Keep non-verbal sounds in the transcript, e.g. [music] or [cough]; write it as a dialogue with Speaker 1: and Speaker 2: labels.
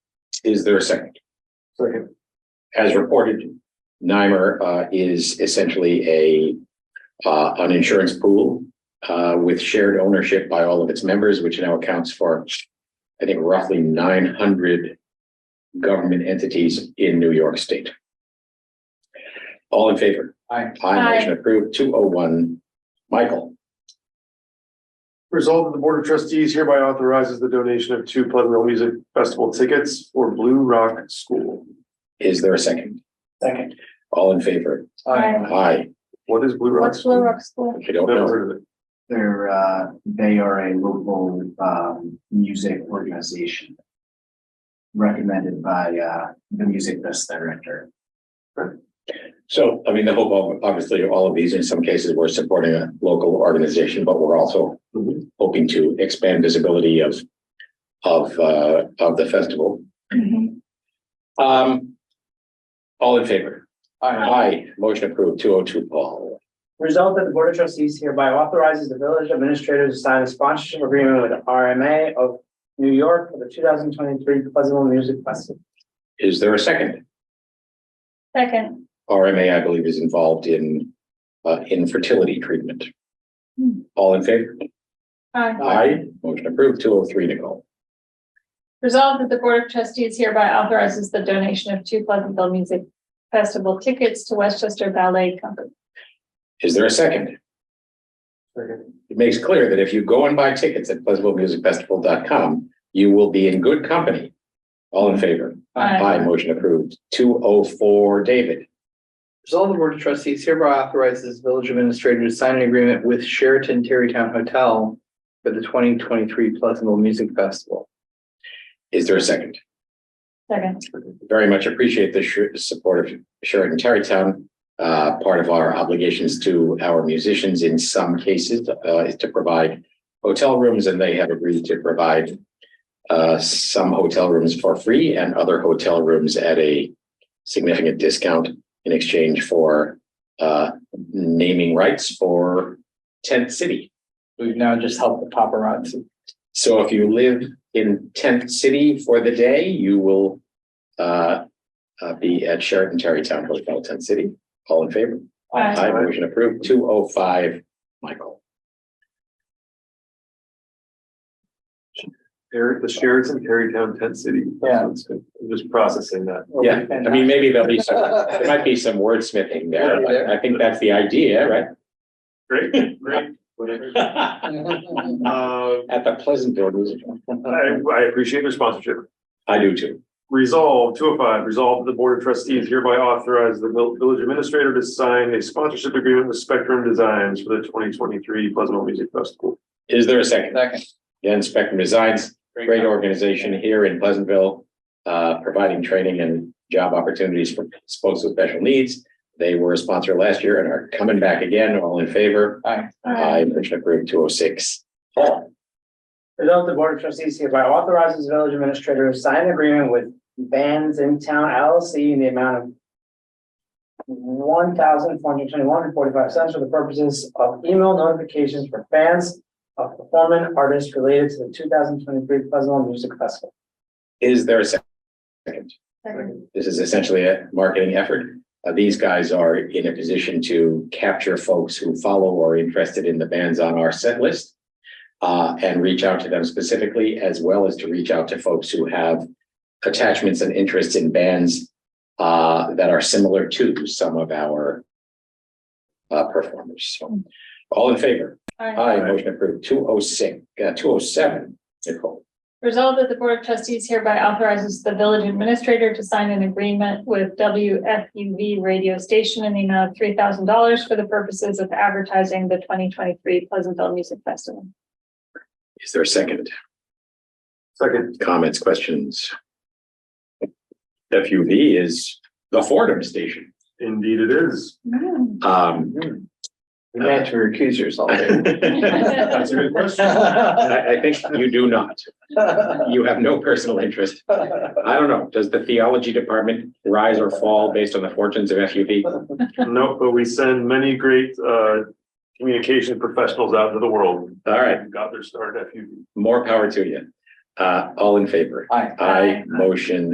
Speaker 1: Is there a second?
Speaker 2: Second.
Speaker 1: As reported, NYMER uh, is essentially a uh, an insurance pool uh, with shared ownership by all of its members, which now accounts for, I think, roughly nine hundred government entities in New York State. All in favor?
Speaker 2: Aye.
Speaker 1: Aye, motion approved, two oh one. Michael,
Speaker 2: Resolved that the Board of Trustees hereby authorizes the donation of two Pleasantville Music Festival tickets for Blue Rock School.
Speaker 1: is there a second?
Speaker 2: Second.
Speaker 1: All in favor?
Speaker 3: Aye.
Speaker 1: Aye,
Speaker 2: What is Blue Rock?
Speaker 3: What's
Speaker 2: School?
Speaker 3: Blue Rock School?
Speaker 1: I don't
Speaker 2: Never
Speaker 1: know.
Speaker 2: heard of it.
Speaker 4: They're, uh, they are a local, um, music organization. Recommended by, uh, the music best director.
Speaker 1: So, I mean, the hope, ob- obviously, all of these, in some cases, we're supporting a local organization, but we're also
Speaker 2: Mhm.
Speaker 1: hoping to expand visibility of, of, uh, of the festival. Um, all in favor? Aye, motion approved, two oh two, Paul.
Speaker 5: Result that the Board of Trustees hereby authorizes the village administrator to sign a sponsorship agreement with RMA of New York for the two thousand twenty-three Pleasantville Music Festival.
Speaker 1: Is there a second?
Speaker 3: Second.
Speaker 1: RMA, I believe, is involved in, uh, infertility treatment.
Speaker 3: Hmm.
Speaker 1: All in favor?
Speaker 3: Aye.
Speaker 1: Aye, motion approved, two oh three, Nicole.
Speaker 3: Resolved that the Board of Trustees hereby authorizes the donation of two Pleasantville Music Festival tickets to Westchester Ballet Company.
Speaker 1: Is there a second?
Speaker 2: Second.
Speaker 1: it makes clear that if you go and buy tickets at pleasantvillemusicfestival.com, you will be in good company. All in favor? Aye, motion approved. Two oh four, David.
Speaker 5: Result of the Board of Trustees hereby authorizes village administrator to sign an agreement with Sheraton Terrytown Hotel for the twenty twenty-three Pleasantville Music Festival.
Speaker 1: Is there a second?
Speaker 3: Second.
Speaker 1: Very much appreciate the sh- support of Sheraton Tarrytown. Uh, part of our obligations to our musicians in some cases, uh, is to provide hotel rooms and they have agreed to provide uh, some hotel rooms for free and other hotel rooms at a significant discount in exchange for uh, naming rights for Tent City.
Speaker 5: We've now just helped the paparazzi.
Speaker 1: So if you live in Tent City for the day, you will uh, uh, be at Sheraton Tarrytown Hotel, Tent City. All in favor?
Speaker 3: Aye.
Speaker 1: Aye, motion approved. Two oh five, Michael.
Speaker 2: Share- The Sheraton Tarrytown Tent City.
Speaker 5: Yeah.
Speaker 2: That's good. I'm Just processing that.
Speaker 1: Yeah, I [laughs]
Speaker 5: [laughs]
Speaker 1: mean, maybe there'll be some, there might be some wordsmithing there, but I think that's the idea, right?
Speaker 2: Great, great. Whatever.
Speaker 5: [laughs]
Speaker 2: Uh,
Speaker 1: At the Pleasantville Music. Hall.
Speaker 2: I, I appreciate your sponsorship.
Speaker 1: I do too.
Speaker 2: Resolve two oh five, resolve that the Board of Trustees hereby authorize the vil- village administrator to sign a sponsorship agreement with Spectrum Designs for the twenty twenty-three Pleasantville Music Festival.
Speaker 1: Is there a second?
Speaker 5: Second.
Speaker 1: Again, Spectrum Designs, great organization here in Pleasantville, uh, providing training and job opportunities for folks with special needs. They were a sponsor last year and are coming back again. All in favor? Aye, motion approved two oh six. Paul,
Speaker 5: Result the Board of Trustees hereby authorizes village administrator to sign an agreement with Bands in Town LLC in the amount of one thousand four hundred twenty-one and forty-five cents for the purposes of email notifications for fans of performing artists related to the two thousand twenty-three Pleasantville Music Festival.
Speaker 1: is there a second?
Speaker 3: Second.
Speaker 1: This is essentially a marketing effort. Uh, these guys are in a position to capture folks who follow or are interested in the bands on our set list. uh, and reach out to them specifically, as well as to reach out to folks who have attachments and interests in bands uh, that are similar to some of our uh, performers. So, all in favor?
Speaker 3: Aye.
Speaker 1: Aye, motion approved. Two oh six, uh, two oh seven, Nicole.
Speaker 3: Resolved that the Board of Trustees hereby authorizes the village administrator to sign an agreement with WFUV radio station in the amount of three thousand dollars for the purposes of advertising the twenty twenty-three Pleasantville Music Festival.
Speaker 1: Is there a second?
Speaker 2: Second,
Speaker 1: Comments, questions? FUV is the Fordham station.
Speaker 2: indeed it is.
Speaker 3: [laughs]
Speaker 1: Um,
Speaker 5: You meant to recuse yourself. [laughs]
Speaker 2: That's a good question.
Speaker 1: I, I think you do not. You have no personal interest I don't know. Does the theology department rise or fall based on the fortunes of FUV?
Speaker 2: Nope, but we send many great, uh, communication professionals out into the world.
Speaker 1: All right,
Speaker 2: Got their start at FUV.
Speaker 1: more power to you. Uh, all in favor?
Speaker 5: Aye.
Speaker 1: Aye, motion